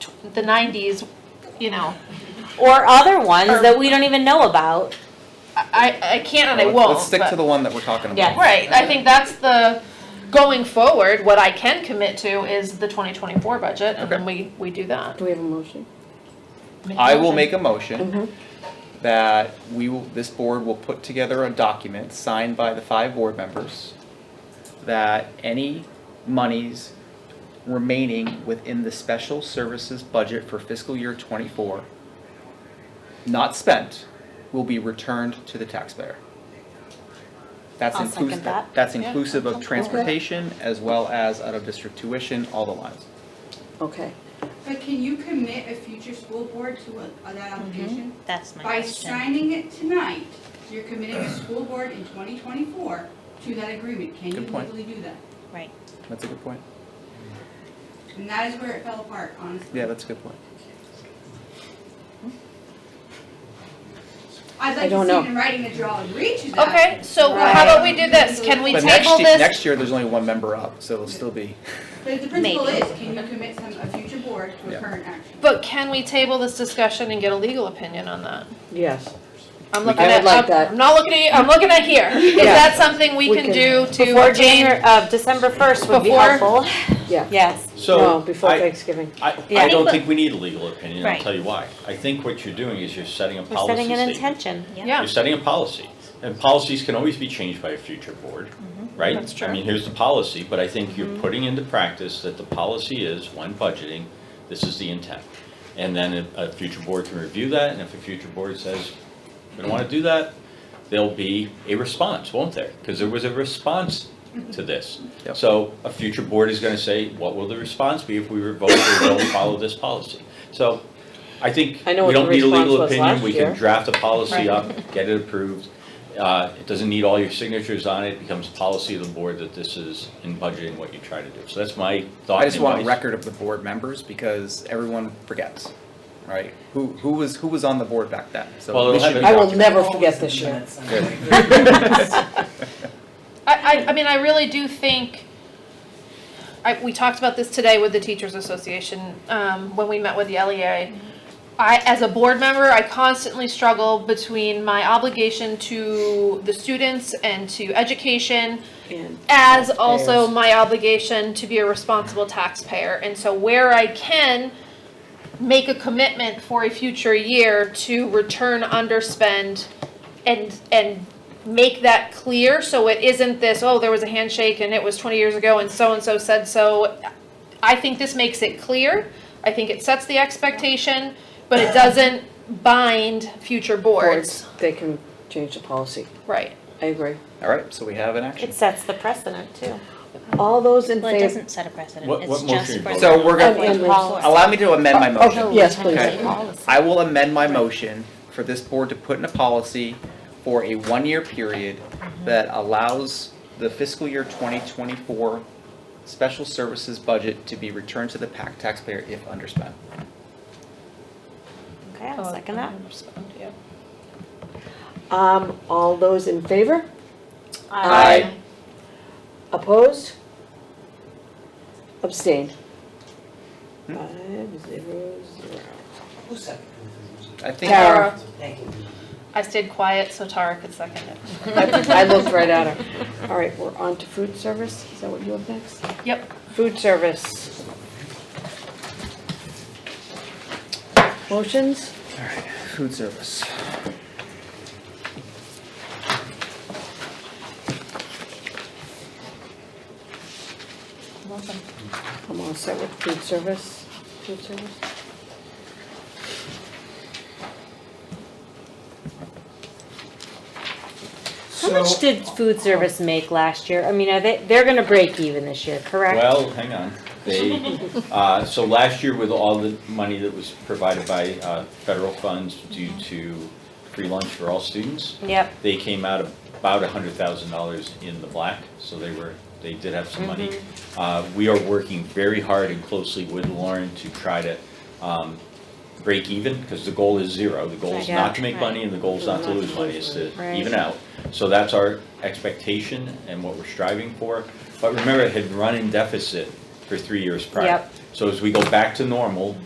tw- the nineties, you know, Or other ones that we don't even know about. I, I I can't and I Let's- won't. Let's stick but- to the one that we're talking about. Yeah. Right, I think that's the, going forward, what I can commit to is the twenty twenty-four budget, and then we, we do that. Do we have a motion? Make a I will motion. make a motion Mm-hmm. that we will, this board will put together a document signed by the five board members that any monies remaining within the special services budget for fiscal year twenty-four not spent will be returned to the taxpayer. That's I'll second inclusive, that. that's inclusive of transportation as well as out-of-district tuition, all the lines. Okay. But can you commit a future school board to a- that obligation? That's my By question. signing it tonight, you're committing a school board in 2024 to that agreement. Can you Good point. legally do that? Right. That's a good point. And that is where it fell apart, honestly. Yeah, that's a good point. I'd I like to don't see it know. in writing that you're all agreed to that. Okay, so how about we do this, can we But next, table ye- this? next year, there's only one member up, so it'll still be. But the principle Maybe. is, can you commit some, a future board to Yeah. a current action? But can we table this discussion and get a legal opinion on that? Yes. I'm We looking can. I would at, like I'm- that. I'm not looking at you, I'm looking at here, is Yeah. that something we We can can- do Before to January, gain? uh, December first would be Before- helpful. Yeah. Yes. No, So, before I, Thanksgiving. I, Yeah. I don't think we need a legal opinion, I'll Right. tell you why. I think what you're doing is you're setting a We're policy setting an statement. intention. Yeah. You're setting a policy, and policies can always be changed by a future board, Mm-hmm. right? That's true. I mean, here's the policy, but I think you're putting into practice that the policy is, when budgeting, this is the intent. And then a, a future board can review that, and if a future board says, we don't wanna do that, there'll be a response, won't there? Because there was a response Mm-hmm. to this. Yep. So a future board is gonna say, what will the response be if we revoke or don't follow this policy? So I think I know we what the don't need a legal response was last opinion, we year. can draft a Right. policy up, get it approved. Uh, It doesn't need all your signatures on it, it becomes policy of the board that this is in budgeting what you try to do. So that's my thought I and just want a advice. record of the board members because everyone forgets, right? Who, who was, who was on the board back then? So Well, it'll this have should it- be I will documented. never forget this year. I, I, I mean, I really do think, I, we talked about this today with the Teachers Association, um, when we met with the LEA. I, as a board member, I constantly struggle between my obligation to the students and to education And as also Taxpayers. my obligation to be a responsible taxpayer. And so where I can make a commitment for a future year to return underspend and, and make that clear, so it isn't this, oh, there was a handshake and it was twenty years ago and so-and-so said so. I think this makes it clear, I think it sets the expectation, but it doesn't bind future boards, boards, they can change the policy. right? I agree. All right, so we have an action. It sets the precedent too. All those in Well, it favor? doesn't set a precedent, What- it's what motion just you for. vote? So we're And- and- gonna, allow me to amend my Oh, motion. Yes, please. Okay. I will amend my motion for this board to put in a policy for a one-year period that allows the fiscal year 2024 special services budget to be returned to the PAC taxpayer if underspent. Okay, I'll second that. Yeah. Um, all those in favor? Aye. Opposed? Abstained? Five, zero, zero. Who seconded I think. Tara. Tara, Thank you. I stayed quiet so Tara could second it. I I looked right at her. All right, we're on to food service. Is that what you have next? Yep. Food service. Motions? Food service. I'm all set with food service. Food service? How much did food service make last year? I mean, are they, they're gonna break even this year, correct? Well, hang on, they, uh, so last year with all the money that was provided by uh, federal funds due to free lunch for all students, Yep. they came out about a hundred thousand dollars in the black, so they were, they did have some money. Mm-hmm. Uh, we are working very hard and closely with Lauren to try to, um, break even, because the goal is zero, the goal is Yeah, not to make right. money and the goal is not to lose money, it's to Right. even out. So that's our expectation and what we're striving for, but remember, it had run in deficit for three years prior. Yep. So as we go back to normal,